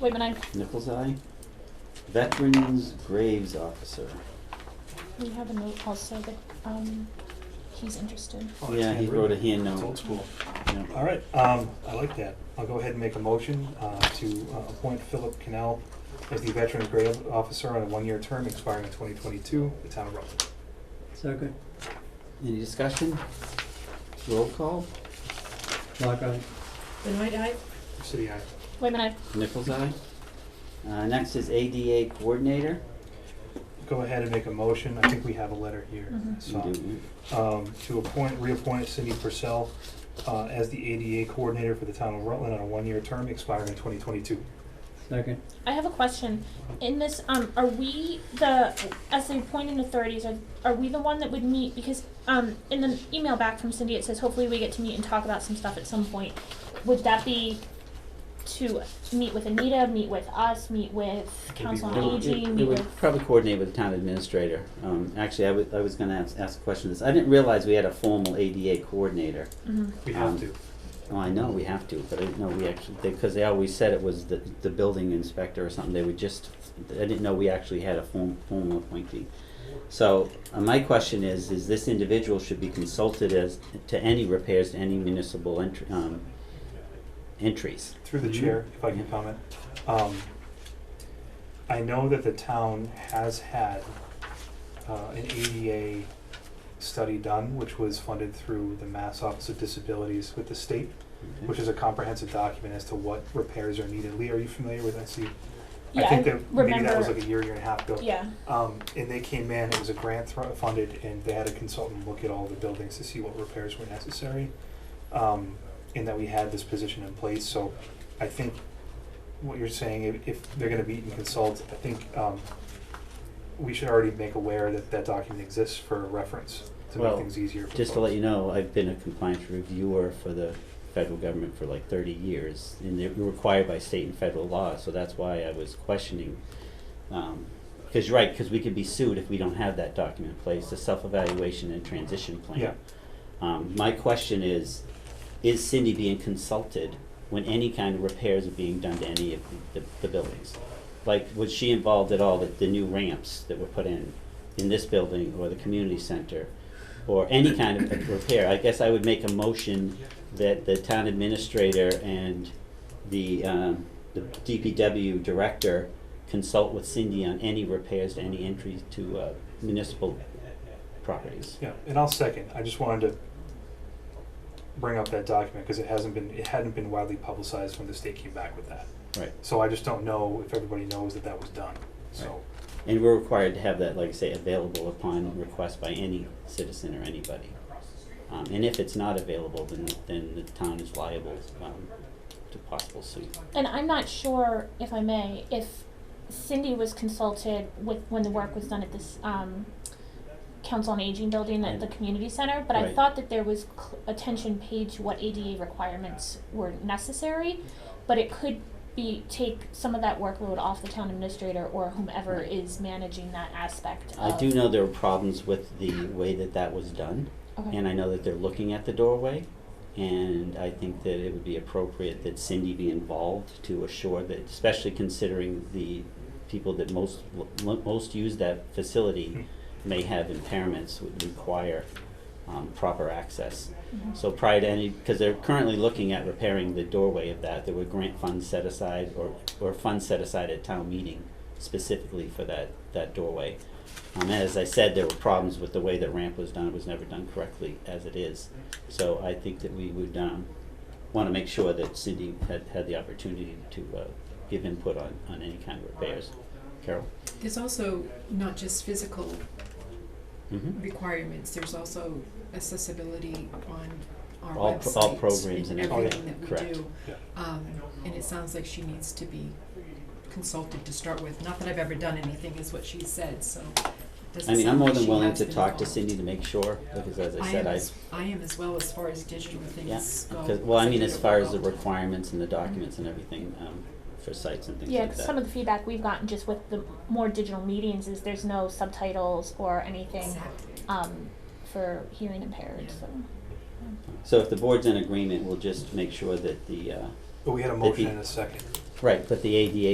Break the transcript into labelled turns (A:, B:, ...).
A: Waitman, aye.
B: Nichols Eye. Veterans Graves Officer.
A: We have a note also that, um, he's interested.
C: Oh, it's
B: Yeah, he
C: handwritten.
B: wrote a hand
C: It's
B: note.
C: old school.
B: Yeah.
C: All right, um, I like that. I'll go ahead and make a motion, uh, to uh, appoint Philip Cannell as the Veteran Grade Officer on a one-year term expiring in twenty twenty-two, the town of Rutland.
D: Second,
B: Any discussion? Roll call.
D: Clark eye.
E: Benoit eye,
C: City, aye.
A: Waitman, aye.
B: Nichols Eye. Uh, next is ADA Coordinator.
C: Go ahead and make a motion. I think we have a letter here,
A: Mhm.
C: so.
B: Mm-hmm.
C: um, to appoint, reappoint Cindy Purcell uh, as the ADA coordinator for the town of Rutland on a one-year term expiring in 2022.
D: second,
A: I have a question. In this, um, are we the, as the appointing authorities, are, are we the one that would meet? Because, um, in the email back from Cindy, it says hopefully we get to meet and talk about some stuff at some point. Would that be to meet with Anita, meet with us, meet with Council
B: It
A: on
B: would- it-
A: Aging,
B: It
A: meet with?
B: would probably coordinate with the town administrator. Um, actually, I was, I was gonna ask, ask a question of this. I didn't realize we had a formal ADA coordinator.
A: Mhm.
C: We have
B: Um,
C: to.
B: Oh, I know we have to, but I didn't know we actually, because they always said it was the, the building inspector or something, they would just, I didn't know we actually had a form, formal appointee. So, uh, my question is, is this individual should be consulted as, to any repairs to any municipal entry, um, entries?
C: Through the chair, if I can
B: Mhm.
C: comment. Um, I know that the town has had uh, an ADA study done, which was funded through the Mass Office of Disabilities with the state,
B: Okay.
C: which is a comprehensive document as to what repairs are needed. Lee, are you familiar with that? See,
A: Yeah,
C: I think
A: I
C: that maybe that was
A: remember-
C: like a year, year and a half ago.
A: Yeah,
C: Um, and they came in, it was a grant thro- funded, and they had a consultant look at all the buildings to see what repairs were necessary. Um, and that we had this position in place, so I think what you're saying, if, if they're gonna meet and consult, I think, um, we should already make aware that that document exists for reference, to make
B: Well,
C: things easier for
B: Just to let
C: folks.
B: you know, I've been a compliance reviewer for the federal government for like thirty years, and they're required by state and federal law, so that's why I was questioning. Um, cause you're right, cause we could be sued if we don't have that document in place, the self-evaluation and transition plan.
C: Yeah,
B: Um, my question is, is Cindy being consulted when any kind of repairs are being done to any of the, the buildings? Like, was she involved at all with the new ramps that were put in, in this building or the community center? Or any kind of repair? I guess I would make a motion that the town administrator and the, um, the DPW director consult with Cindy on any repairs to any entries to, uh, municipal properties.
C: yeah, and I'll second, I just wanted to bring up that document, cause it hasn't been, it hadn't been widely publicized when the state came back with that.
B: Right.
C: So I just don't know if everybody knows that that was done, so.
B: And we're required to have that, like I say, available upon request by any citizen or anybody. Um, and if it's not available, then, then the town is liable, um, to possible suit.
A: and I'm not sure, if I may, if Cindy was consulted with, when the work was done at this, um, Council on Aging building at the community center, but I
B: Right.
A: thought that there was cl- attention paid to what ADA requirements were necessary, but it could be, take some of that workload off the town administrator or whomever
B: Right.
A: is managing that aspect
B: I
A: of-
B: do know there were problems with the way that that was done,
A: Okay.
B: and I know that they're looking at the doorway. And I think that it would be appropriate that Cindy be involved to assure that, especially considering the people that most, most use that facility may have impairments would require, um, proper access.
A: Mhm.
B: So prior to any, because they're currently looking at repairing the doorway of that, there were grant funds set aside or, or funds set aside at town meeting specifically for that, that doorway. Um, as I said, there were problems with the way the ramp was done, it was never done correctly as it is. So I think that we would, um, wanna make sure that Cindy had, had the opportunity to, uh, give input on, on any kind of repairs. Carol?
E: there's also not just physical
B: Mm-hmm.
E: requirements, there's also accessibility on our
B: All pro- all programs
E: websites and
B: and everything,
E: everything that we do.
B: correct.
C: Yeah.
E: Um, and it sounds like she needs to be consulted to start with, not that I've ever done anything, is what she said, so it
B: I
E: doesn't
B: mean, I'm
E: sound
B: more
E: like
B: than
E: she
B: willing
E: has
B: to
E: been
B: talk to
E: involved.
B: Cindy to make sure, because as I
E: I
B: said,
E: am
B: I,
E: as, I am as well as far as digital
B: Yeah,
E: things go.
B: because, well, I mean,
E: did
B: as
E: it
B: far as the
E: remote.
B: requirements and the documents and everything, um, for sites and things
A: Yeah,
B: like
A: 'cause some of
B: that.
A: the feedback we've gotten just with the more digital meetings is there's no subtitles or anything,
E: Exactly.
A: um, for hearing impaired,
E: Yeah.
A: so.
B: So if the board's in agreement, we'll just make sure that the, uh,
C: But we had a
B: If he-
C: motion and a second.
B: right, but the ADA